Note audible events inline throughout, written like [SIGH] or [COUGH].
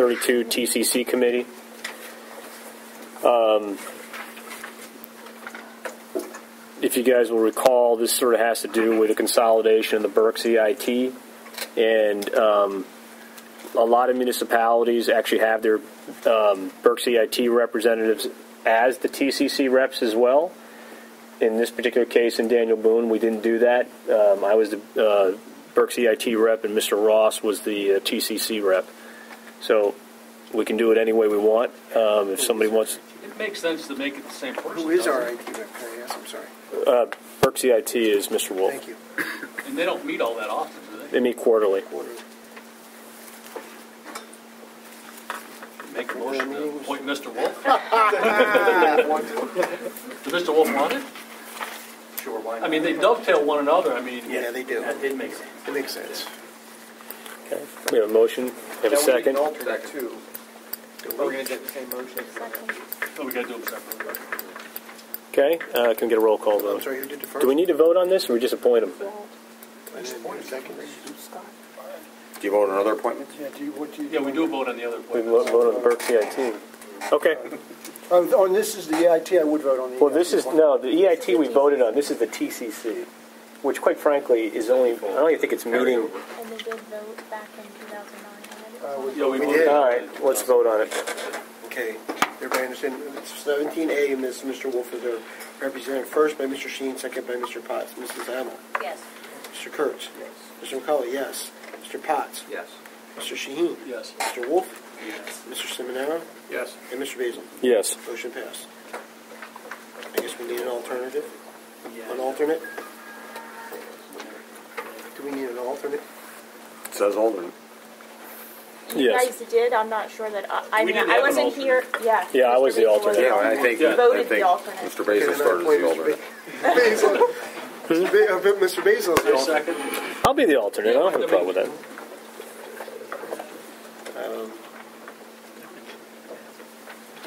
32 TCC committee. Um, if you guys will recall, this sort of has to do with the consolidation of the Berks EIT. And um, a lot of municipalities actually have their um, Berks EIT representatives as the TCC reps as well. In this particular case, in Daniel Boone, we didn't do that. Um, I was the uh, Berks EIT rep, and Mr. Ross was the uh, TCC rep. So we can do it any way we want. Um, if somebody wants It makes sense to make it the same person. Who is doesn't our it? IT director? Yes, I'm sorry. Berks EIT, E is Mr. Wolf. Thank you. And they don't meet all that often, do they? They meet quarterly. Quarterly. Make a motion to appoint Mr. Wolf. Ah, Yeah, Does Mr. Wolf want it? Sure, why not? I mean, they dovetail one another, I mean. they do. That did make sense. It makes sense. Okay. We have a motion. We have a second. Now, we need an alternate too. Are we going to get the same motion? Oh, we gotta do them separately. Okay. Uh, can we get a roll call I'm vote? sorry, who did the first? Do we need to vote on this, or we just appoint them? And then second? Do you vote on other appointments? Yeah, do you, what do you? Yeah, we do vote on the other We vote appointments. vote on the Burke CIT. Okay. Oh, on this is the EIT, I would vote on the. Well, this EIT is one. no. The EIT we voted on. This is the TCC, which, quite frankly, is only. I don't even think it's meeting. And they did vote back in 2009. Uh, on we- it. Yeah, we We voted. did. All right. Let's vote on it. Okay, everybody understand, seventeen A, and this Mr. Wolf is there, represented first by Mr. Sheen, second by Mr. Potts. Mrs. Hamel? Yes. Mr. Kurtz? Yes. Mr. McCullough, yes. Mr. Potts? Yes. Mr. Sheen? Yes. Mr. Wolf? Yes. Mr. Simonero? Yes. And Mr. Basil? Yes. Motion passed. I guess we need an alternative? An alternate? Do we need an alternate? It says Alderman. You Yes. guys did, I'm not sure that, I- I We mean, didn't I have an wasn't alternate. here, yeah. Yeah, I Mr. was the Basil alternate. Yeah, I think, You I voted think the alternate. Mr. Basil started as the alternate. [LAUGHS] Basil. Mr. Ba- uh, Mr. Basil is the I alternate. second. I'll be the alternate. I don't have a problem with that. Um,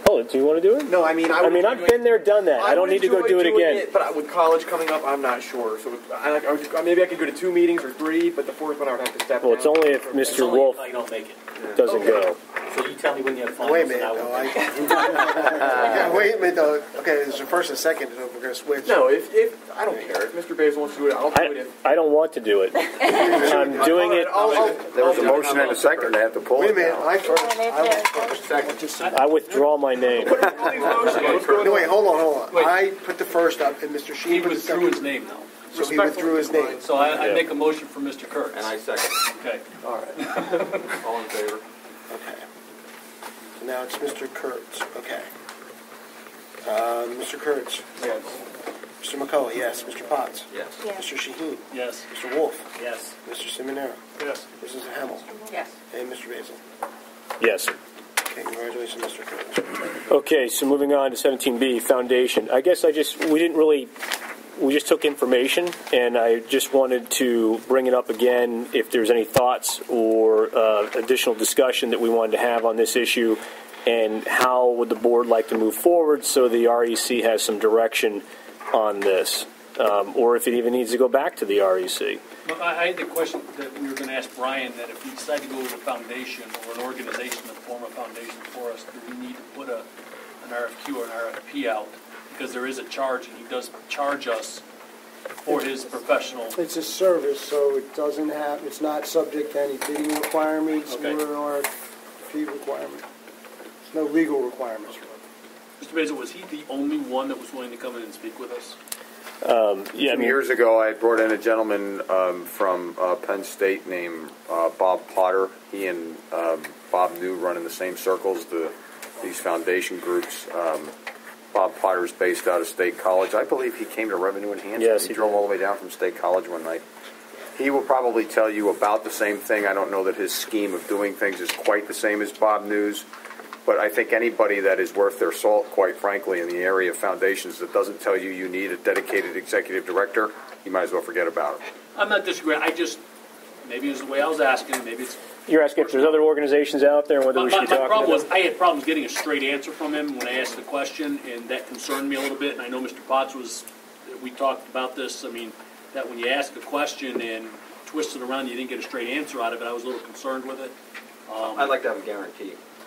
Oh, do you want to do it? No, I mean, I. I would mean, enjoy I've doing- been there, done that. I don't would need to go enjoy do it doing again. But I- with college coming up, I'm not sure, so I, I would- maybe I could go to two meetings or three, but the fourth one I would have to step down. Well, it's only if It's Mr. only Wolf if I don't make it. doesn't go. So you tell me when you have finals. Wait a and minute, I will- though. I- [LAUGHS] Uh, Yeah, wait a minute, though. Okay, there's a first and second, and we're gonna switch. No, if, if, I don't care, if Mr. Basil wants to do it, I'll do I, it. I don't want to do it. I'm doing it. All right, I'll- I'll- There was I'll do a it. motion and a second, they have to pull Wait a it minute, now. I first. Yeah, they I was did. first. I withdraw my name. Please motion. Let's go No, wait, hold on, hold on. Wait. I put the first up, and Mr. He Sheen put the withdrew his second. name now. So he withdrew his name. So I, I Yeah. make a motion for Mr. Kurtz. And I second. Okay. All right. All in favor? Okay. So now it's Mr. Kurtz, okay. Uh, Mr. Kurtz, Yes. Mr. McCullough, yes, Mr. Potts. Yes. Yes. Mr. Shaheen, Yes. Mr. Wolf, Yes. Mr. Seminara, Yes. Mrs. Hamel, Yes. and Mr. Basil. Yes. Okay, congratulations, Mr. Kurtz. Okay, so moving on to 17B, foundation. I guess I just, we didn't really, we just took information, and I just wanted to bring it up again if there's any thoughts or uh, additional discussion that we wanted to have on this issue, and how would the board like to move forward so the REC has some direction on this, um, or if it even needs to go back to the E REC. Well, I, I had the question that we were gonna ask Brian, that if we decide to go with a foundation or an organization to form a foundation for us, do we need to put a, an RFQ or an RFP out? Because there is a charge, and he does charge us for his professional. It's a service, so it doesn't have, it's not subject to any bidding requirements or Okay. RFP requirement. There's no legal requirements. Mr. Basil, was he the only one that was willing to come in and speak with us? Yeah, I Some mean, years ago, I had brought in a gentleman um, from uh, Penn State named uh, Bob Potter. He and um, Bob New run in the same circles, the these foundation groups. Um, Bob Potter is based out of State College. I believe he came to Revenue Enhancement. Yes, he, he drove did. all the way down from State College one night. He will probably tell you about the same thing. I don't know that his scheme of doing things is quite the same as Bob News, but I think anybody that is worth their salt, quite frankly, in the area of foundations that doesn't tell you you need a dedicated executive director, you might as well forget about it. I'm not disagreeing, I just, maybe it was the way I was asking, maybe it's you're asking if there's other organizations out there and whether My, we my, should my be talking problem about was I had problems getting a straight answer from him when I asked the question, and that concerned me a little bit. And I know Mr. Potts was, we talked about this. I mean, that when you ask a question and twist it around, you didn't get a straight answer out of it. I was a little concerned with it. I'd like to have a guarantee.